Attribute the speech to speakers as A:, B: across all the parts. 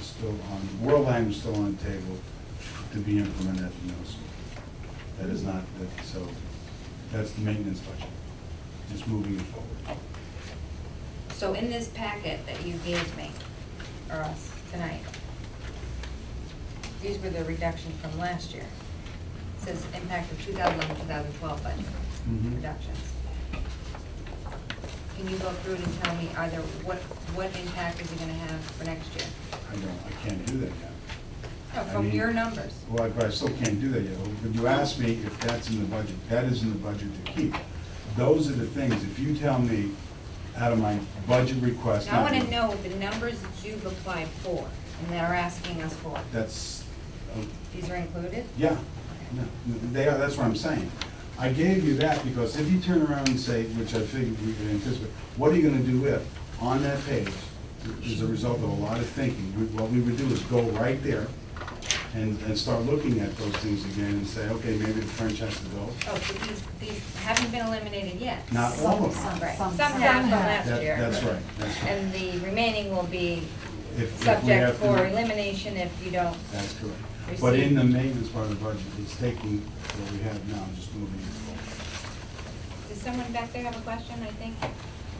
A: still on, world language is still on the table to be implemented at the middle school. That is not, that- so, that's the maintenance budget, just moving it forward.
B: So in this packet that you gave me, or us, tonight, these were the reductions from last year. It Says impact of 2011, 2012 budget
A: Mhm.
B: reductions. Can you go through it and tell me either what, what impact is it gonna have for next year?
A: I don't, I can't do that yet.
B: No,
A: I
B: from
A: mean-
B: your numbers.
A: Well, I- but I still can't do that yet. But you asked me if that's in the budget. That is in the budget to keep. Those are the things, if you tell me out of my budget request.
B: Now, I
A: not-
B: wanna know what the numbers that you've applied for and that are asking us for.
A: That's, uh,
B: These are included?
A: yeah, no, they are, that's what I'm saying. I gave you that because if you turn around and say, which I figured we could anticipate, what are you gonna do if? On that page, is a result of a lot of thinking. We- What we would do is go right there and, and start looking at those things again and say, okay, maybe the French has to go.
B: Oh, so these, these haven't been eliminated yet?
A: Not all
C: Oh.
A: of them.
B: Right, some have
C: Some-
B: from
C: some have.
B: last
A: That-
B: year.
A: That's right, that's right.
B: And the remaining will be
A: If- if we
B: subject
A: have to-
B: for elimination if you don't,
A: That's correct. But in the maintenance part of the budget, it's taking what we have now, and just moving it forward.
B: does someone back there have a question, I think?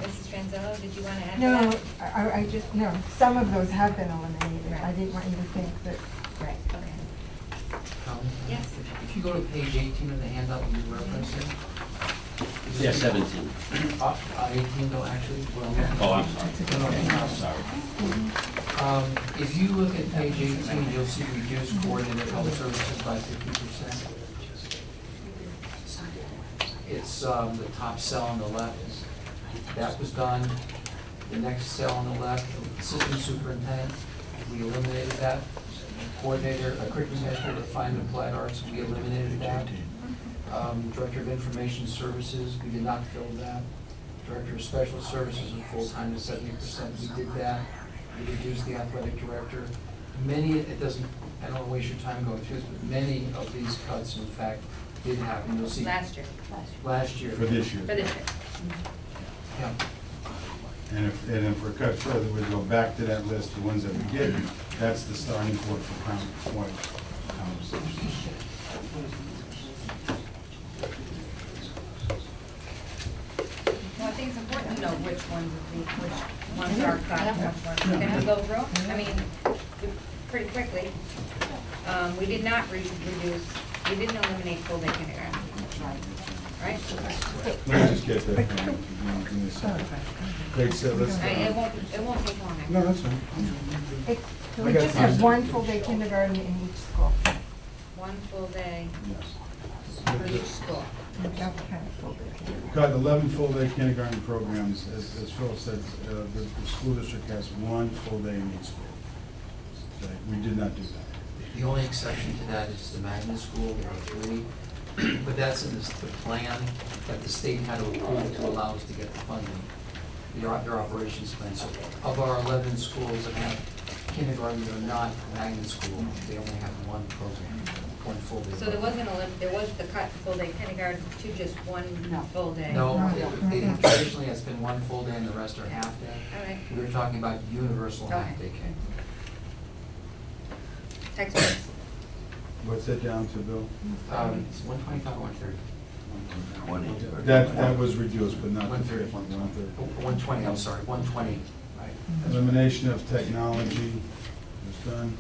B: Mrs. Franzello, did you want to add to that?
C: No, I, I- I just, no, some of those have been eliminated. I
B: Right.
C: didn't want you to think that,
B: Right, okay.
D: Colin?
B: Yes.
D: If you go to page 18 of the handout you referenced,
E: Yeah, seventeen.
D: uh, uh, 18 though, actually, well,
E: Oh, I'm sorry.
D: no,
E: I'm sorry.
D: um, if you look at page 18, you'll see reduced coordinated health services by 50%. It's um, the top cell on the left, that was done. The next cell on the left, system superintendent, we eliminated that. Coordinator, uh, curriculum administrator, fine and applied arts, we eliminated that. Um, Director of Information Services, we did not fill that. Director of Special Services and full-time to seventy percent, we did that. We reduced the athletic director. Many, it doesn't, I don't want to waste your time going through this, but many of these cuts, in fact, did happen. You'll see
B: Last year,
D: last year.
A: For this year.
B: for this year.
D: Yeah.
A: And if, and if we're cut further, we go back to that list, the ones that we did, that's the starting point for com- point conversation.
B: Well, I think it's important to know which ones, of the- which ones are cut, which ones, can I go through? I mean, we- pretty quickly. Um, we did not re- reduce, we didn't eliminate full day kindergarten. Right?
A: Let me just get that. from you, if you want, give me a second. Great, so let's. uh,
B: I- It won't, it won't take long. I-
A: No, that's fine.
C: it- can we
A: I got
C: just have
A: some.
C: one full day kindergarten in each school?
B: One full day
A: Yes.
B: for each school.
C: That kind of full day kindergarten.
A: Got eleven full-day kindergarten programs, as, as Phil said, uh, the, the school district has one full-day in each school. Okay, We did not do that.
D: The only exception to that is the magnet school, there are three, but that's in the the plan that the state had to approve to allow us to get the funding, their op- their operations plan. So of our 11 schools that have kindergarten, they're not magnet school, they only have one program, one full day.
B: So there wasn't a, lim- there was the cut full day kindergarten to just one full day.
D: No,
C: No.
D: it- it- traditionally, it's been one full day and the rest are half
B: All
D: day.
B: right.
D: We were talking about universal half
B: Okay.
D: day care.
B: Textbooks,
A: What's that down to, Bill?
D: Um, It's 125, 130.
E: Twenty.
A: That, that was reduced, but not the
D: One thirty.
A: fifth one, one thirty.
D: Oh, 120, I'm sorry, 120. Right.
A: Elimination of technology was done.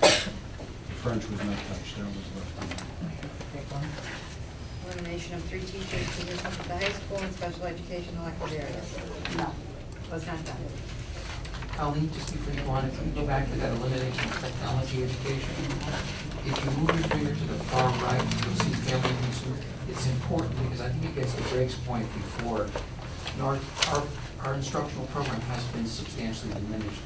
A: The French was not touched, that was left.
B: elimination of three teachers positions at the high school and special education elective areas. No. Was not done.
D: Colleen, just before you go on, if you go back to that elimination of technology education, if you move your finger to the far right, you'll see family and consumer. It's important because I think it gets to Greg's point before. And Our, our, our instructional program has been substantially diminished.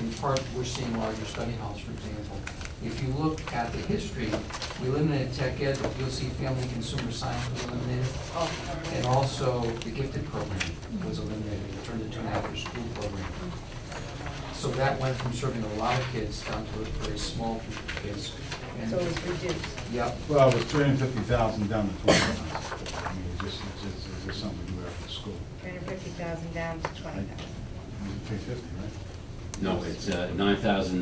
D: In part, we're seeing larger study halls, for example. If you look at the history, we eliminated tech ed, but you'll see family and consumer science was eliminated. And also, the gifted program was eliminated, It turned into an after-school program. So that went from serving a lot of kids down to a very small group of kids. And-
B: So it was reduced.
D: Yep,
A: Well, it was three hundred fifty thousand down to twenty. I mean, it's just, it's just, it's just something you have for school.
B: Three hundred fifty thousand down to twenty thousand.
A: Three fifty, right?
E: No, it's uh, nine thousand